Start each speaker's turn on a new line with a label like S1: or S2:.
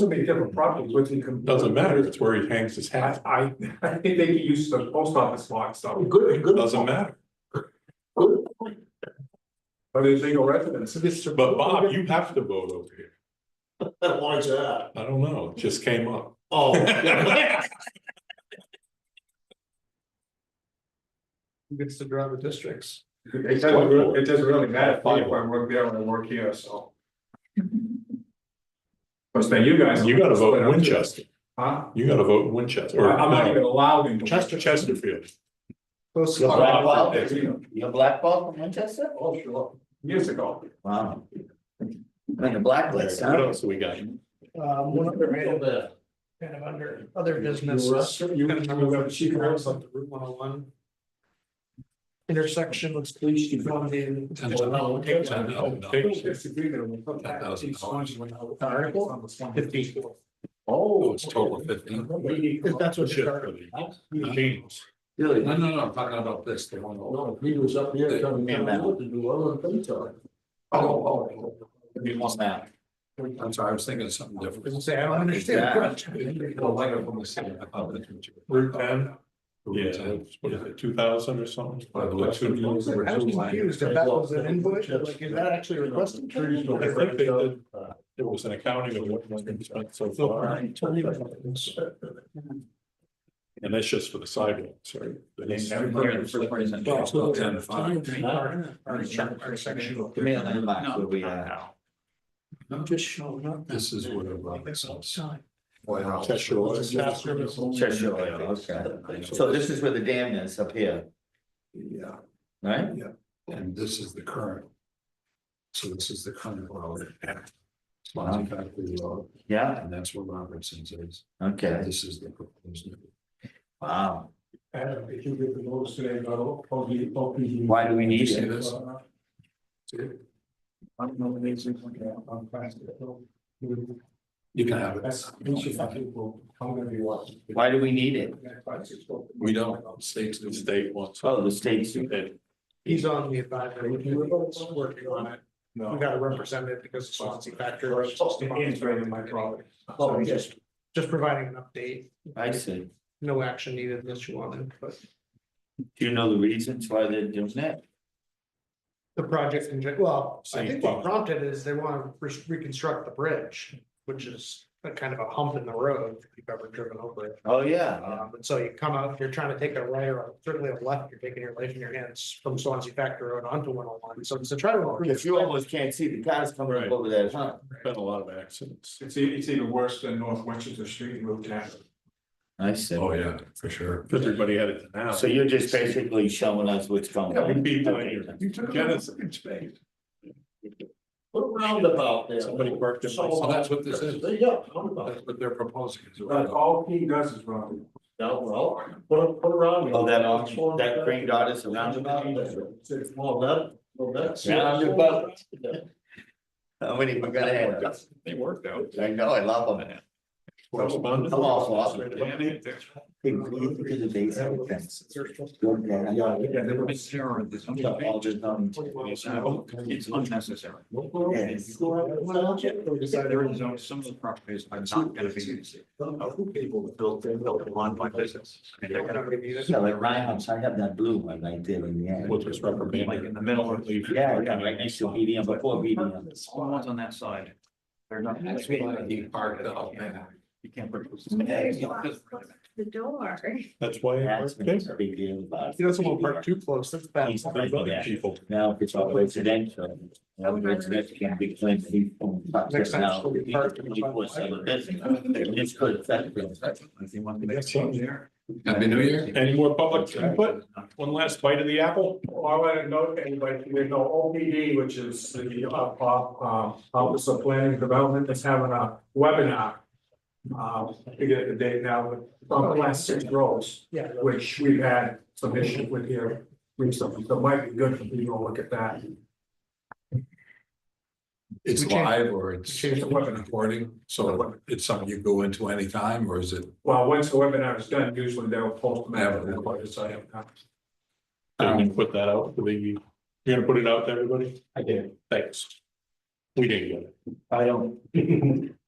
S1: so many different properties, what's he? com-
S2: Doesn't matter, it's where he hangs his
S1: I,
S2: hat,
S1: I, I think they could use the post office lot, so,
S3: Good, good.
S2: doesn't matter.
S3: Good.
S1: but there's legal residents.
S3: Mr.
S2: But Bob, you have to vote over here.
S3: Why is
S4: uh,
S3: that?
S2: I don't know, it just came up.
S3: Oh.
S5: Who gets to draw the districts?
S1: It doesn't, re- it doesn't really matter if I work there or I work here, so. But then you guys.
S2: You gotta vote Winchester,
S1: Huh?
S2: you gotta vote Winchester,
S1: I-
S2: or
S1: I'm not even
S2: no,
S1: allowed in.
S2: Chester, Chesterfield.
S5: Close.
S3: Yeah,
S5: enough.
S3: Bob,
S4: uh, You're blackballed from Winchester?
S3: Oh, sure.
S1: Years ago.
S4: Wow. I mean, a blacklist,
S2: What
S4: huh?
S2: else we got?
S5: Um, one other item, kind of under other business.
S3: You
S5: Kind of
S3: rest-
S5: talking
S3: you-
S5: about Chief Rose on the Route one oh one. Intersection with police department. Fifteen.
S2: Oh, it's total fifteen.
S5: If that's what
S2: Shit.
S5: you're.
S2: James.
S4: Really?
S6: No, no, no, I'm talking about this, the one.
S3: No, he was up here telling me
S4: Yeah, man.
S3: what to do, I don't think so.
S6: Oh,
S4: You want that?
S6: oh, I'm sorry, I was thinking of something different.
S5: Say, I don't understand. the question.
S6: Oh, like I'm from the city, I thought that's what you were-
S2: Route ten, yeah,
S6: Yeah.
S2: what is it, two thousand or something?
S6: By the way, two years
S5: I
S6: were
S5: was
S6: two lines.
S5: confused if that was an invoice, like, is that actually requested?
S3: Trees don't
S2: I think they did.
S3: Uh,
S2: There was an accounting of what been spent so
S5: So,
S2: far,
S5: I tell you what, it's-
S2: and that's just for the sidewalks, right?
S6: It's about ten to five.
S5: Our- our- our section.
S4: Give me a landmark where we, uh,
S5: I'm just showing up.
S6: This is where.
S5: This outside.
S6: Boy, how-
S2: Cheshire was.
S4: Cheshire, okay. So this is where the dam is up here,
S6: Yeah,
S4: right?
S6: and this is the current. So this is the current road. Swansea Factory Road,
S4: Yeah,
S6: and that's where Robertson's is,
S4: okay,
S6: this is the proposed.
S4: wow.
S1: And if you get the notice today, about OP, OP.
S4: Why do we need
S6: See
S4: it?
S6: this?
S1: I'm nominating, I'm past it.
S6: You can have
S1: That's, we should
S6: it.
S1: fucking go, I'm gonna be watching.
S4: Why do we need it?
S6: We don't, states do.
S2: State wants.
S4: Oh, the state's,
S5: He's on the advisory, committee, he's working on it, we
S1: No.
S5: got a representative because of Swansea factor.
S1: It's right in my property.
S5: So he's just, just providing an update,
S4: I see.
S5: no action needed unless you wanted, but
S4: Do you know the reasons why they're doing that?
S5: the project in, gen- well, I think what
S2: Safety.
S5: prompted is they want to re- reconstruct the bridge, which is a kind of a hump in the road, if you've ever driven over it.
S4: Oh, yeah,
S1: Uh-huh.
S5: Um, and so you come out, if you're trying to take a right or certainly a left, you're taking your life in your hands from Swansea Factor Road onto one oh one, so it's a try to.
S4: because you almost can't see the cars coming up over that, huh?
S2: Been a lot of accidents.
S1: It's, e- it's even worse than North Winchester Street, Route ten.
S4: I see.
S6: Oh, yeah, for sure.
S2: Everybody had it now.
S4: So you're just basically showing us what's going
S2: Yeah, we'd
S4: on.
S2: be doing
S4: Okay.
S2: it. You took Genesis.
S3: Put a
S4: Oh,
S3: roundabout there.
S2: Somebody parked in my-
S3: So-
S6: Well, that's what this is.
S3: Yeah, roundabout.
S6: That's what they're proposing. is a
S1: But
S6: roundabout.
S1: all he does is run.
S3: No, well, put a, put a roundabout.
S4: Oh, that orange- that green dot is a roundabout?
S3: Well, that, well, that's.
S4: Roundabout. How many we gonna have?
S2: They worked out.
S4: I know, I love them.
S2: Correspondence.
S4: I'm awful, awesome.
S2: Danny,
S4: Hey, look at the base of the fence. Look at that.
S6: Yeah, they were sure of this.
S4: I'm talking all just on-
S6: It's unnecessary.
S4: Yes.
S6: There is no- some of the properties are not gonna be. People built, they built one by business. And they're gonna be
S4: Yeah, like Reinhardt's, I have that blue one right there in the
S2: Which
S4: end.
S2: was reprimanded.
S6: Like in the middle.
S4: Yeah, yeah, right next to medium, before medium.
S6: All the ones on that side. They're not. You park it up, man. You can't. put-
S7: The door.
S2: That's why. I
S4: That's
S2: worked
S4: been
S2: there.
S4: a big deal about.
S5: He doesn't want to park too close, that's bad.
S4: He's
S2: Three
S4: right
S2: million
S4: there.
S2: people.
S4: Now, if it's all residential. Now, residential can be claimed to be. from-
S5: Next time it's
S4: Now,
S5: gonna be parked in the front.
S4: equals seven business. It's good, that's good.
S6: If you want to
S2: That's something.
S6: Happy New Year.
S2: Any more public input? One last bite of the apple?
S1: Well, I want to note, anybody, you know, OPD, which is the uh, uh, uh, Office of Planning and Development, is having a webinar. Um, to get the date now, but on class six roads,
S5: Yeah.
S1: which we've had some issues with here recently, so it might be good for people to look at that.
S6: It's
S5: We changed-
S6: live or it's
S1: we changed the webinar.
S6: recording, so it's something you go into anytime or is it?
S1: Well, once the webinar is done, usually they'll post them out, and like I say, uh,
S2: Can you put that out for the, you're gonna put it out to everybody? I did. Thanks. We didn't get it.
S4: I don't.